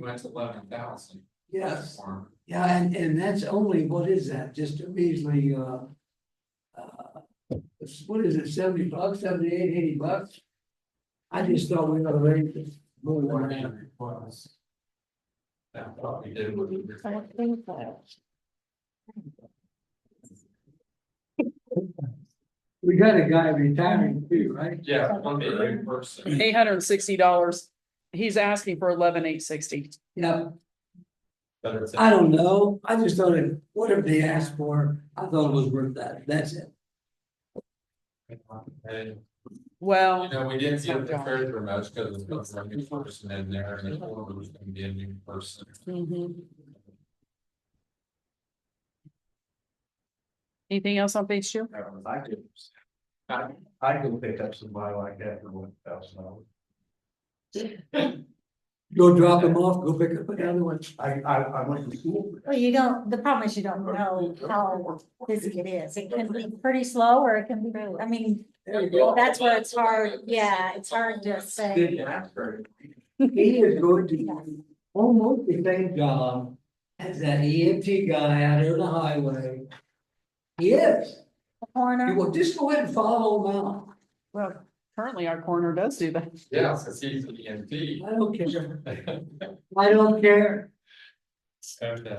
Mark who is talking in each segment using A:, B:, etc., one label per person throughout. A: went to eleven thousand.
B: Yes, yeah, and, and that's only, what is that, just a measly, uh. uh, it's- What is it, seventy bucks, seventy-eight, eighty bucks? I just thought we were raise it more
A: Four
B: than
A: man
B: that.
A: requests. That probably did.
B: We got a guy retiring too, right?
A: Yeah, one million person.
C: Eight hundred and sixty dollars. He's asking for eleven eight sixty.
B: Yeah,
A: but it's-
B: I don't know, I just thought, if whatever they asked for, I thought it was worth that, that's it.
A: And, you
C: Well,
A: know, we didn't get the treasurer much because there was a new person in there and the board was gonna be a new person.
D: Mm-hmm.
C: mhm. Anything else on page two?
E: That was, I could,
A: Uh,
E: I could pick up somebody like that for one thousand dollars.
B: Go drop them off, go pick up another one.
E: I, I, I went to school.
D: Well, you don't, the problem is you don't know how busy it is. It can be pretty slow or it can be, I mean,
B: There you go.
D: that's where it's hard, yeah, it's hard to say.
B: He is going to do almost the same job as that EMT guy out there on the highway. Yes,
D: Corner,
B: well, just go ahead and follow him out.
C: Well, currently our coroner does do that.
A: Yeah, because he's an EMT.
B: I don't care. I don't care.
A: Okay.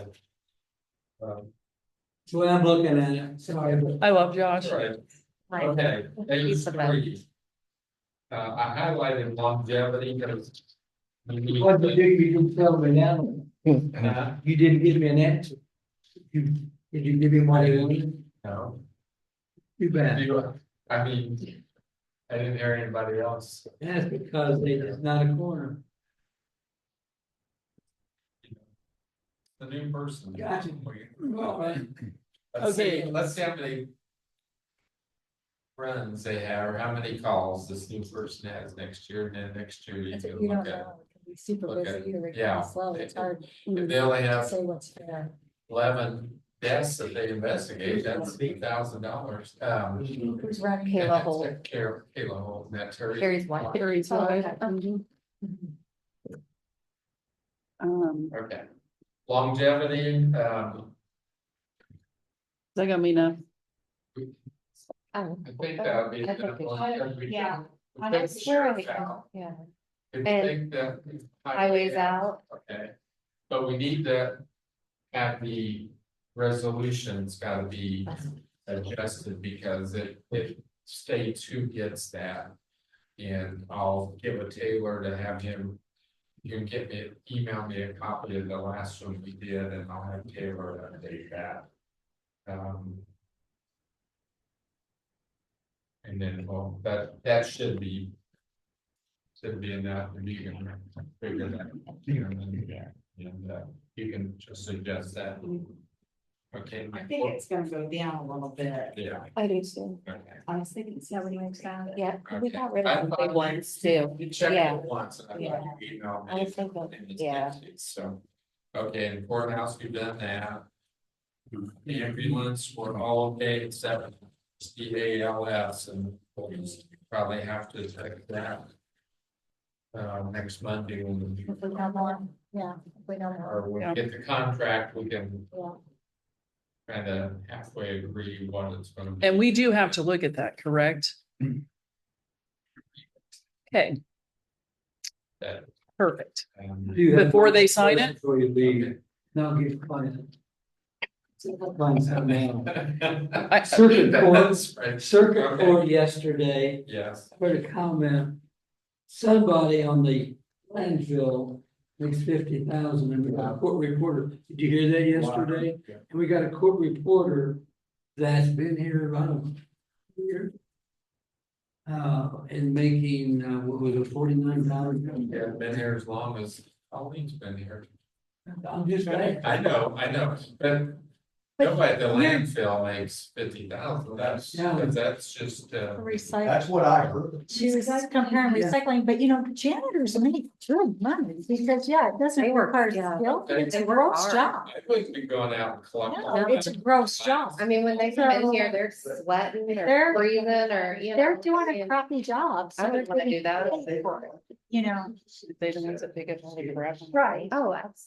A: Um,
B: That's the way I'm looking at it. Sorry, but
C: I love Josh.
A: all right,
D: like,
A: okay, page
C: He's the best.
A: three. Uh, I highlighted longevity because. we need
B: what you
A: to-
B: do, you didn't tell me now.
A: Uh,
B: You didn't give me an answer. You, did you give me what I wanted?
A: No.
B: Too bad.
A: You- I mean, I didn't hear anybody else.
B: That's because they, it's not a corner.
A: The new person.
B: Gotcha. All right.
A: Let's see,
C: Okay.
A: let's see how many. Runs they have, or how many calls this new person has next year, and then next year you
D: it's-
A: can
D: you
A: look
D: don't
A: at. it.
D: know. It can be super
A: Look at
D: busy or it
A: yeah.
D: can be slow. It's hard
A: If they only
D: to
A: have
D: say what's fair.
A: eleven deaths that they investigate, that's eight thousand dollars, um.
D: Who's running?
A: and
F: Kayla
A: that's
F: Holt,
A: at Kara- Kayla Holt, and that's Terry.
F: Terry's wife.
C: Carries
D: Oh,
C: right.
D: okay. Mm-hmm.
C: Mhm. Um, is
A: Okay. Longevity, um,
C: that gonna mean a,
F: Oh,
A: I think that would be.
F: I think
A: enough
F: it's-
A: longevity.
F: yeah.
D: Oh,
F: uh,
A: We take the sheriff out.
F: Yeah,
A: If you take
F: And
A: the.
F: highways out,
A: Okay, but we need to have the resolution's gotta be adjusted because it, it states who gets that. And I'll give a Taylor to have him, you can get me, email me a copy of the last one we did and I'll have Taylor update that. Um. And then, well, that, that should be. Should be enough, and you can figure that. you know, and, yeah, And, uh, you can just suggest that. Okay.
G: I think it's gonna go down a little bit.
A: Yeah.
F: I do too,
A: Okay.
G: I was thinking seventy percent.
F: yeah, we
A: Okay.
F: got rid
A: I
F: of the
A: thought
F: big
A: you-
F: ones too,
A: You checked
F: Yeah.
A: it once and I thought you emailed
F: I
A: me.
F: was thinking,
A: and it's
F: yeah.
A: empty, So, okay, and courthouse, we've done that. The ambulance, we're all okay except D A L S and we'll probably have to take that. Uh, next Monday when we,
D: If we
F: Mm-hmm.
D: know more, yeah, if we know more,
A: or when
C: Yeah.
A: we get the contract, we can
D: yeah.
A: kind of halfway agree what it's gonna be.
C: and we do have to look at that, correct?
A: Mm-hmm.
C: Okay,
A: that,
C: perfect.
A: um,
B: You have-
C: Before they sign it?
B: Before you leave, now give client. Client some man.
C: I-
B: Circuit court,
A: That's right,
B: circuit court yesterday,
A: yes,
B: I heard a comment. Somebody on the landfill makes fifty thousand and we got a court reporter. Did you hear that yesterday?
A: Yeah.
B: And we got a court reporter that's been here about a year. Uh, and making, uh, what was it, forty-nine thousand?
A: yeah, been here as long as Colleen's been here.
B: I'm just, saying.
A: I know, I know, but Nobody at the landfill makes fifty thousand, that's,
B: Yeah.
A: because that's just, uh.
D: Recycle,
E: That's what I heard.
D: she was comparing
B: Yeah.
D: recycling, but you know, janitors make good money, because, yeah, it doesn't
F: They work,
D: require
F: yeah.
D: skill,
A: They-
D: it's a
F: they work
D: gross
F: hard.
D: job.
A: I wouldn't be going out and collecting.
D: No, it's a gross job,
F: I mean, when they come in here, they're sweating
D: They're-
F: or breathing or, you know.
D: they're doing a
F: and-
D: crappy job. so
F: I wouldn't
D: they're
F: wanna
D: getting
F: do that.
D: paid for it, You know,
C: They the ones that pick up all the crap.
D: right.
F: Oh, absolutely.